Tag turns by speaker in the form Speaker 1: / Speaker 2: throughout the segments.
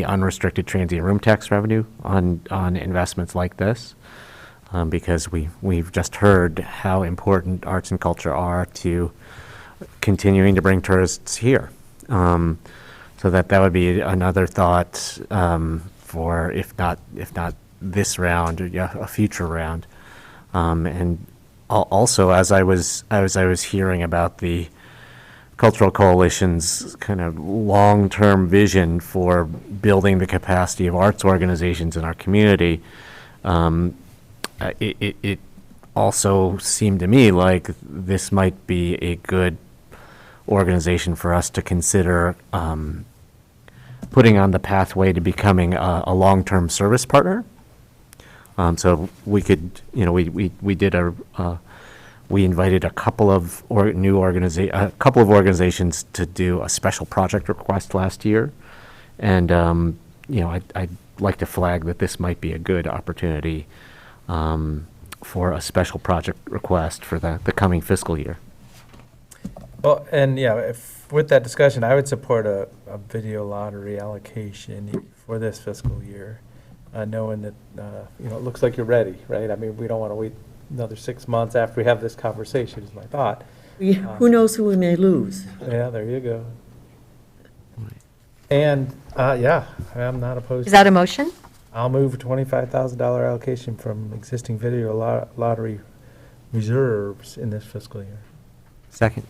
Speaker 1: the unrestricted transient room tax revenue on, on investments like this, um, because we, we've just heard how important arts and culture are to continuing to bring tourists here. Um, So that, that would be another thought um, for, if not, if not this round, yeah, a future round. Um, And al- also, as I was, as I was hearing about the, Cultural Coalition's kind of long-term vision for building the capacity of arts organizations in our community, um, uh, it, it, it also seemed to me like this might be a good organization for us to consider um, putting on the pathway to becoming a, a long-term service partner. Um, so we could, you know, we, we, we did a, uh, we invited a couple of or, new organiza, a couple of organizations to do a special project request last year. And, um, you know, I, I'd like to flag that this might be a good opportunity, um, for a special project request for the, the coming fiscal year.
Speaker 2: Well, and yeah, if, with that discussion, I would support a, a video lottery allocation for this fiscal year, uh, knowing that, uh, you know, it looks like you're ready, right? I mean, we don't want to wait another six months after we have this conversation, is my thought.
Speaker 3: We- Who knows who we may lose?
Speaker 2: Yeah, there you go. And, uh, yeah, I'm not opposed.
Speaker 4: Is that a motion?
Speaker 2: I'll move a twenty-five thousand dollar allocation from existing video lo- lottery reserves in this fiscal year.
Speaker 1: Second.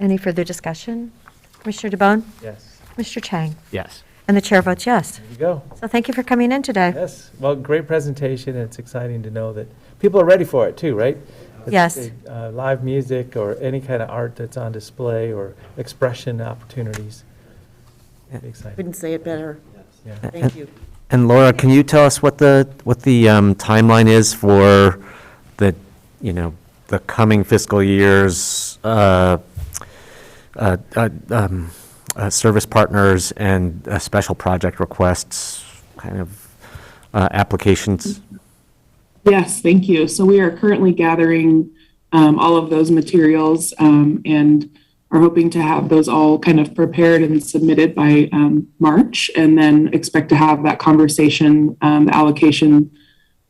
Speaker 4: Any further discussion? Commissioner DeBonne?
Speaker 2: Yes,
Speaker 4: Mr. Chang?
Speaker 1: Yes.
Speaker 4: And the chair votes yes.
Speaker 2: there you go.
Speaker 4: So thank you for coming in today.
Speaker 2: Yes, well, great presentation, and it's exciting to know that people are ready for it too, right? It's-
Speaker 4: Yes.
Speaker 2: uh, Live music or any kind of art that's on display or expression opportunities. Exciting,
Speaker 3: Couldn't say it better.
Speaker 2: yeah.
Speaker 3: Thank you.
Speaker 1: And Laura, can you tell us what the, what the um, timeline is for the, you know, the coming fiscal year's uh, uh, uh, um, uh, service partners and uh, special project requests kind of uh, applications?
Speaker 5: Yes, thank you. So we are currently gathering um, all of those materials um, and are hoping to have those all kind of prepared and submitted by um, March, and then expect to have that conversation, um, allocation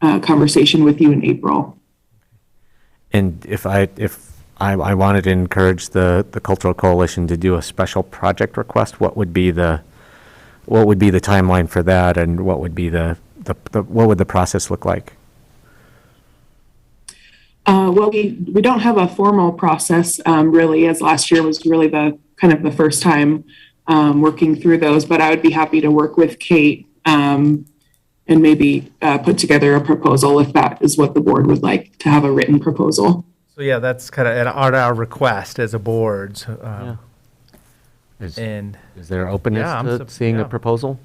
Speaker 5: uh, conversation with you in April.
Speaker 1: And if I, if I, I wanted to encourage the, the Cultural Coalition to do a special project request, what would be the, what would be the timeline for that? And what would be the, the, the- what would the process look like?
Speaker 5: Uh, well, we, we don't have a formal process um, really, as last year was really the kind of the first time um, working through those. But I would be happy to work with Kate um, and maybe uh, put together a proposal if that is what the board would like to have a written proposal.
Speaker 2: So, yeah, that's kind of at our, our request as a board, so, um,
Speaker 1: Is-
Speaker 2: and
Speaker 1: Is there
Speaker 2: Eh. Yeah, I'm
Speaker 1: openness to
Speaker 2: sup-
Speaker 1: seeing a
Speaker 2: yeah.
Speaker 1: proposal?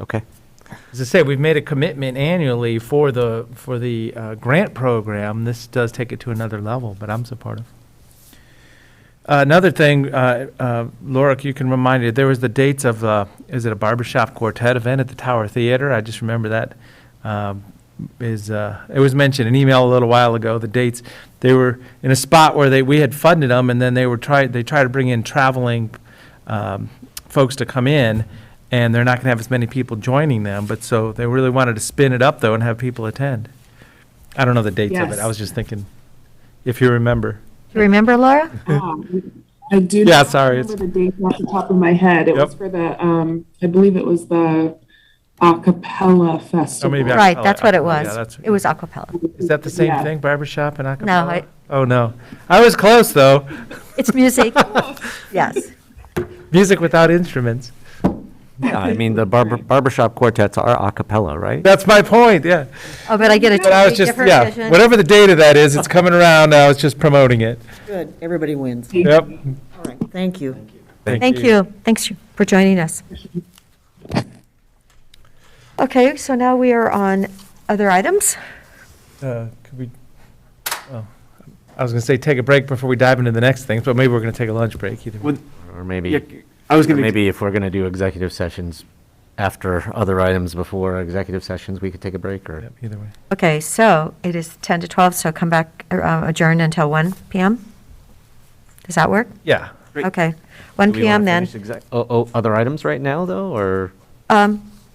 Speaker 1: Okay.
Speaker 2: As I say, we've made a commitment annually for the, for the uh, grant program. This does take it to another level, but I'm supportive. Uh, Another thing, uh, uh, Laura, you can remind me, there was the dates of, uh, is it a barbershop quartet event at the Tower Theater? I just remember that um, is, uh, it was mentioned in email a little while ago, the dates. They were in a spot where they, we had funded them, and then they were try, they tried to bring in traveling um, folks to come in, and they're not going to have as many people joining them, but so they really wanted to spin it up, though, and have people attend. I don't know the dates of it.
Speaker 5: Yes.
Speaker 2: I was just thinking, if you remember.
Speaker 4: Do you remember, Laura?
Speaker 5: Um, I do.
Speaker 2: Yeah,
Speaker 5: not
Speaker 2: sorry, it's-
Speaker 5: Remember the date off the top of my head. It was
Speaker 2: Yep.
Speaker 5: for the, um, I believe it was the a cappella festival.
Speaker 2: Oh, maybe I-
Speaker 4: Right,
Speaker 2: acapella,
Speaker 4: that's what it
Speaker 2: acapella, yeah,
Speaker 4: was.
Speaker 2: that's-
Speaker 4: It was acapella.
Speaker 2: Is that the same
Speaker 5: Yeah.
Speaker 2: thing, barbershop and acapella?
Speaker 4: I-
Speaker 2: oh no, I was close though.
Speaker 4: It's music. Yes.
Speaker 2: Music without instruments.
Speaker 1: Yeah, I mean, the barber, barbershop quartets are a cappella, right?
Speaker 2: That's my point. Yeah,
Speaker 4: Oh, but I get a
Speaker 2: but I
Speaker 4: totally
Speaker 2: was just
Speaker 4: different
Speaker 2: yeah.
Speaker 4: vision.
Speaker 2: Whatever the date of that is, it's coming around. I was just promoting it.
Speaker 3: Good, everybody wins.
Speaker 2: Yep.
Speaker 3: All right, thank you.
Speaker 4: Thank you. Thanks for joining us. Okay, so now we are on other items.
Speaker 2: Uh, could we? Oh, I was going to say take a break before we dive into the next things, but maybe we're going to take a lunch break. Either way.
Speaker 6: Would-
Speaker 1: Or
Speaker 6: yeah,
Speaker 1: maybe,
Speaker 6: I was
Speaker 1: or
Speaker 6: going to,
Speaker 1: maybe if we're going to do executive sessions after other items before executive sessions, we could take a break or?
Speaker 2: Yep, either way.
Speaker 4: Okay, so it is 10 to 12, so come back, uh, adjourn until 1 PM? Does that work?
Speaker 2: Yeah.
Speaker 6: Great.
Speaker 4: Okay, 1
Speaker 1: Do we wanna
Speaker 4: PM then.
Speaker 1: finish exec- Oh, oh, other items right now though, or?
Speaker 4: Um,